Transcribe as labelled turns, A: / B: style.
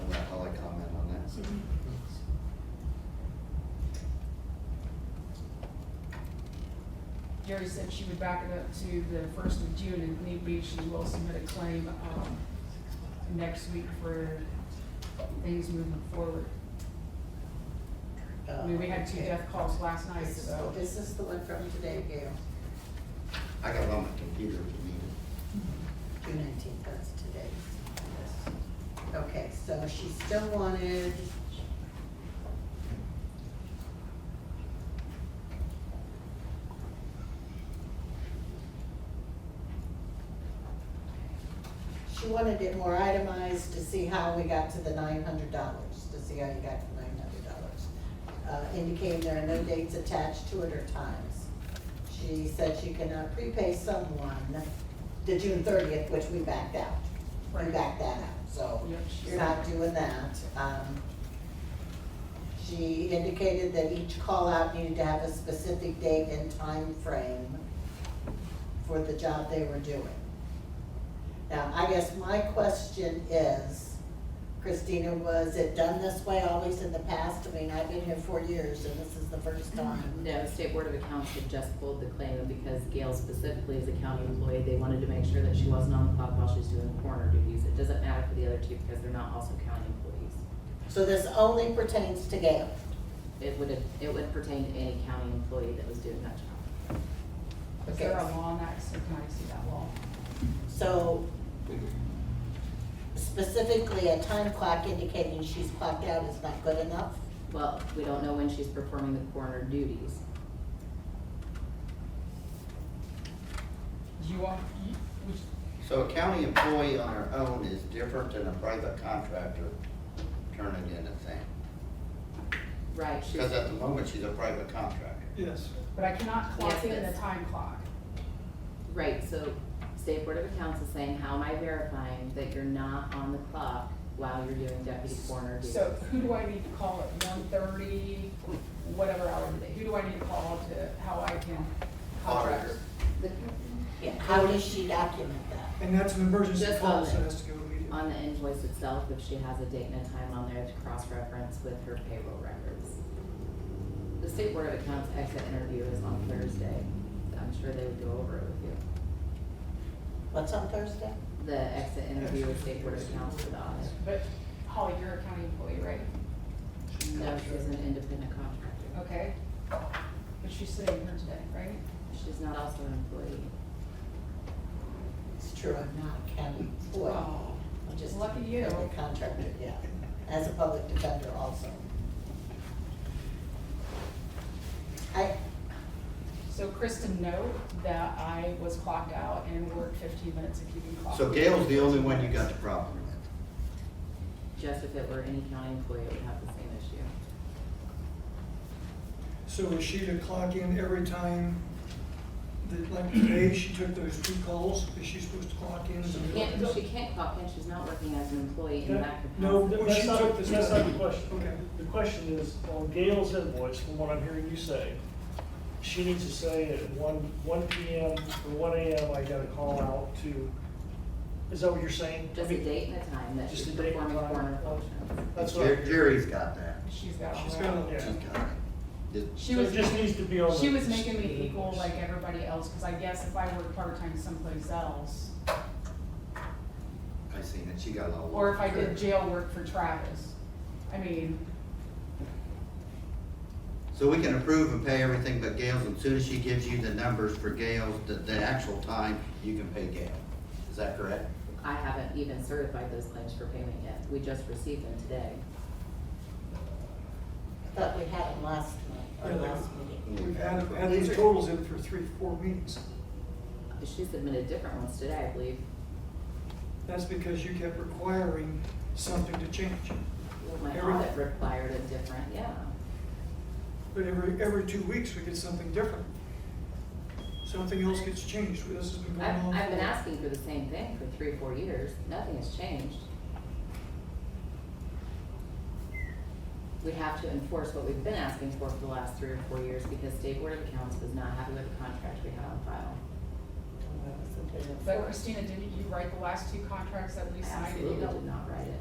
A: on that, I'll like comment on that.
B: Mm-hmm. Jerry said she would back it up to the first of June, and if need be, she will submit a claim, um, next week for things moving forward.
C: Uh,
B: I mean, we had two death calls last night,
C: This is,
B: so.
C: this is the one from today, Gail,
A: I got it on my computer if you need it.
C: June nineteenth, that's today. Yes. Okay, so she still wanted. She wanted it more itemized to see how we got to the nine hundred dollars, to see how you got to nine hundred dollars. Uh, indicating there are no dates attached to it or times. She said she cannot prepay someone the June thirtieth, which we backed out. We
B: Right.
C: backed that out, so
B: Yep, she
C: you're not doing that. Um, She indicated that each call out needed to have a specific date and time frame for the job they were doing. Now, I guess my question is, Christina, was it done this way always in the past? I mean, I've been here four years and this is the first time.
D: No, State Board of Accounts had just pulled the claim and because Gail specifically is a county employee. They wanted to make sure that she wasn't on the clock while she's doing coroner duties. It doesn't matter for the other two because they're not also county employees.
C: So this only pertains to Gail.
D: It would, it would pertain to any county employee that was doing that job.
B: Is there a law on that, so can I see that law?
C: So specifically, a time clock indicating she's clocked out is not good enough?
D: Well, we don't know when she's performing the coroner duties.
B: Do you want, you- which,
A: So a county employee on her own is different than a private contractor turning in a thing.
D: Right, she's,
A: Because at the moment, she's a private contractor.
E: Yes.
B: but I cannot clock
D: Yes,
B: in the
D: miss.
B: time clock.
D: right, so State Board of Accounts is saying, how am I verifying that you're not on the clock while you're doing deputy coroner duties?
B: So who do I need to call at one thirty, whatever hour of the day? Who do I need to call to, how I can contract?
A: Auditor.
D: The-
C: Yeah. How does she document that?
E: And that's an emergency
D: Just
E: call,
D: on
E: so it
D: it.
E: has to go immediately.
D: On the invoice itself, if she has a date and a time on there to cross-reference with her payroll records. The State Board of Accounts exit interview is on Thursday. I'm sure they would go over it with you.
C: What's on Thursday?
D: The exit interview with State Board of Accounts for the audit.
B: But Holly, you're a county employee, right?
D: No, she's an independent contractor.
B: Okay. But she's sitting here today, right?
D: She's not also an employee.
C: It's true, I'm not a county employee.
B: Oh,
C: I'm just
B: Lucky you.
C: a contractor, yeah, as a public defender also. I,
B: So Kristen, note that I was clocked out and worked fifteen minutes if you can clock.
A: So Gail's the only one you got the problem with.
D: Just if it were any county employee, it would have the same issue.
E: So is she to clock in every time, that, like today, she took those two calls, is she supposed to clock in?
D: She can't, she can't clock in, she's not working as an employee in that capacity.
E: No,
F: Th-
E: when
F: That's
E: she
F: not,
E: took this
F: that's not
E: study.
F: the question.
E: Okay.
F: The question is, on Gail's invoice, from what I'm hearing you say, she needs to say at one, one P M or one A M, I got a call out to, is that what you're saying? I
D: Just a
F: mean,
D: date and a time that
F: Just
D: she's
F: a date and
D: performing
F: time.
D: coroner functions.
F: That's what, I'm
A: Jer-
F: hearing.
A: Jerry's got that.
B: She's got all
E: She's
B: that.
E: got
F: Yeah.
A: She's got it. Did-
B: She
F: so
B: was,
F: it just needs to be on the.
B: she was making me equal like everybody else, cause I guess if I worked part-time someplace else,
A: I seen it, she got it all.
B: or if I
A: over.
B: did jail work for Travis. I mean,
A: So we can approve and pay everything but Gail's, and soon as she gives you the numbers for Gail's, the, the actual time, you can pay Gail. Is that correct?
D: I haven't even certified those claims for payment yet. We just received them today.
C: thought we had them last night, or
E: Yeah,
C: last meeting.
E: We've had, had these totals in for three, four meetings.
D: She submitted different ones today, I believe.
E: That's because you kept requiring something to change.
D: My
E: Every-
D: audit required a different, yeah.
E: But every, every two weeks, we get something different. Something else gets changed, this has been going
D: I've,
E: on.
D: I've been
E: for-
D: asking for the same thing for three, four years. Nothing has changed. We have to enforce what we've been asking for for the last three or four years because State Board of Accounts was not happy with the contract we had on file.
C: Well, it was a bit of-
B: but Christina, didn't you write the last two contracts that we
D: I
B: signed? and you
D: absolutely
B: don't-
D: did not write it.